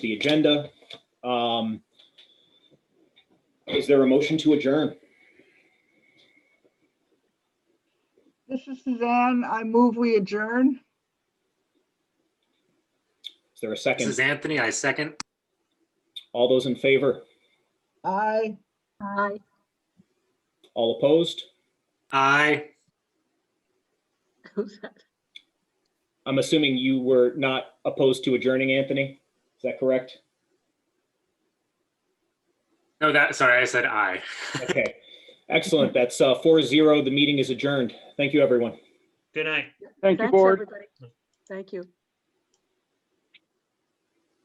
the agenda. Um, Is there a motion to adjourn? This is Suzanne. I move we adjourn. Is there a This is second? Anthony. I second. All those in favor? Aye. Aye. All opposed? Aye. Who's that? I'm assuming you were not opposed to adjourning, Anthony? Is that correct? No, that, sorry, I said aye. Okay, excellent. That's uh, four zero. The meeting is adjourned. Thank you, everyone. Good night. Thank you, Thanks, board. everybody. Thank you.